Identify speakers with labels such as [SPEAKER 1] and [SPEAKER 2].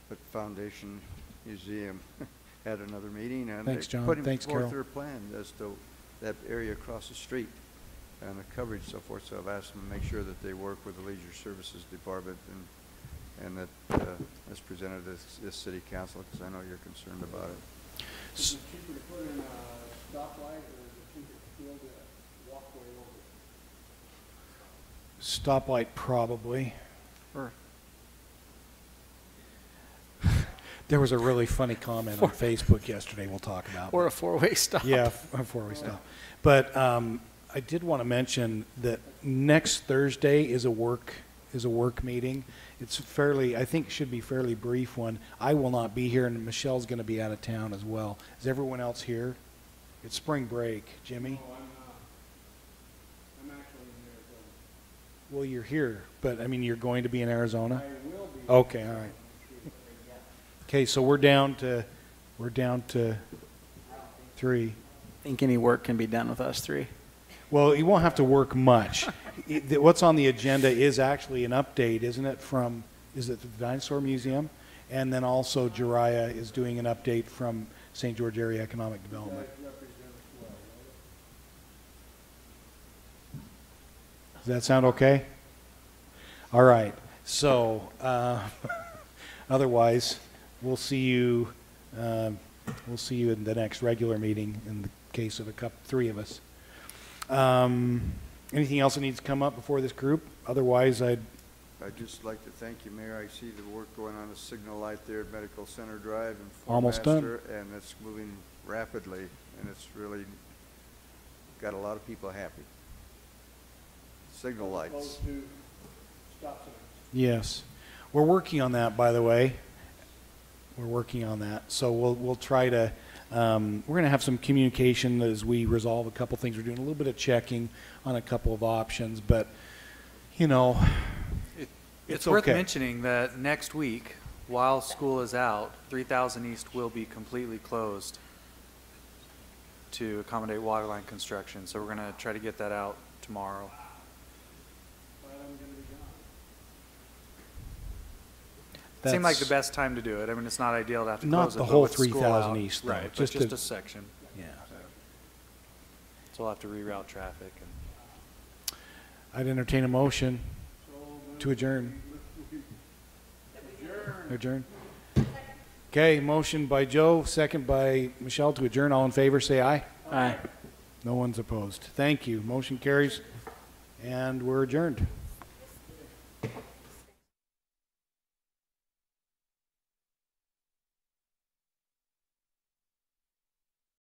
[SPEAKER 1] put Foundation Museum at another meeting, and
[SPEAKER 2] Thanks,
[SPEAKER 1] they
[SPEAKER 2] John.
[SPEAKER 1] put in
[SPEAKER 2] Thanks, Carol.
[SPEAKER 1] forth their plan as to that area across the street and the coverage so forth, so I've asked them to make sure that they work with the Leisure Services Department and, and that uh, it's presented to this, this city council, because I know you're concerned about it.
[SPEAKER 2] S-
[SPEAKER 3] Is it cheaper to put in a stoplight or is it cheaper to build a walkway over
[SPEAKER 2] Stoplight,
[SPEAKER 3] it?
[SPEAKER 2] probably.
[SPEAKER 1] Or
[SPEAKER 2] There was a really funny comment on Facebook yesterday we'll talk about.
[SPEAKER 4] Or a four-way stop.
[SPEAKER 2] Yeah, f- before we stop. But um, I did want to mention that next Thursday is a work, is a work meeting. It's fairly, I think should be fairly brief one. I will not be here and Michelle's going to be out of town as well. Is everyone else here? It's spring break. Jimmy?
[SPEAKER 3] No, Oh, I'm not. I'm actually in Arizona.
[SPEAKER 2] Well, you're here, but I mean, you're going to be in Arizona?
[SPEAKER 3] I will be.
[SPEAKER 2] Okay, all right. Okay, so we're down to, we're down to three.
[SPEAKER 4] Think any work can be done with us three.
[SPEAKER 2] Well, you won't have to work much. It- th- What's on the agenda is actually an update, isn't it, from, is it the Dinosaur Museum? And then also Jariah is doing an update from St. George Area Economic Development. Does that sound okay? All right, so, uh, otherwise, we'll see you, um, we'll see you in the next regular meeting in the case of a cup, three of us. Um, anything else that needs to come up before this group? Otherwise, I'd,
[SPEAKER 1] I'd just like to thank you, Mayor. I see the work going on the signal light there at Medical Center Drive and Fort
[SPEAKER 2] Almost done.
[SPEAKER 1] Master, And it's moving rapidly, and it's really got a lot of people happy. Signal lights.
[SPEAKER 3] Close to stop signs.
[SPEAKER 2] yes. We're working on that, by the way. We're working on that. So we'll, we'll try to, um, we're going to have some communication as we resolve a couple things. We're doing a little bit of checking on a couple of options, but, you know,
[SPEAKER 5] It's
[SPEAKER 2] it's
[SPEAKER 5] worth
[SPEAKER 2] okay.
[SPEAKER 5] mentioning that next week, while school is out, 3,000 East will be completely closed to accommodate water line construction, so we're going to try to get that out tomorrow.
[SPEAKER 3] But I'm gonna be gone.
[SPEAKER 5] Seemed like
[SPEAKER 2] That's-
[SPEAKER 5] the best time to do it. I mean, it's not ideal to have to
[SPEAKER 2] Not
[SPEAKER 5] close it,
[SPEAKER 2] the
[SPEAKER 5] but
[SPEAKER 2] whole
[SPEAKER 5] with school
[SPEAKER 2] 3,000
[SPEAKER 5] out-
[SPEAKER 2] East, though,
[SPEAKER 5] Right, but
[SPEAKER 2] just
[SPEAKER 5] just
[SPEAKER 2] a-
[SPEAKER 5] a section,
[SPEAKER 2] Yeah.
[SPEAKER 5] so we'll have to reroute traffic and.
[SPEAKER 2] I'd entertain a motion
[SPEAKER 3] So then
[SPEAKER 2] to adjourn.
[SPEAKER 3] we- we-
[SPEAKER 2] Adjourn. Okay, motion by Joe, second by Michelle to adjourn. All in favor, say aye.
[SPEAKER 4] Aye.
[SPEAKER 2] No one's opposed. Thank you. Motion carries, and we're adjourned.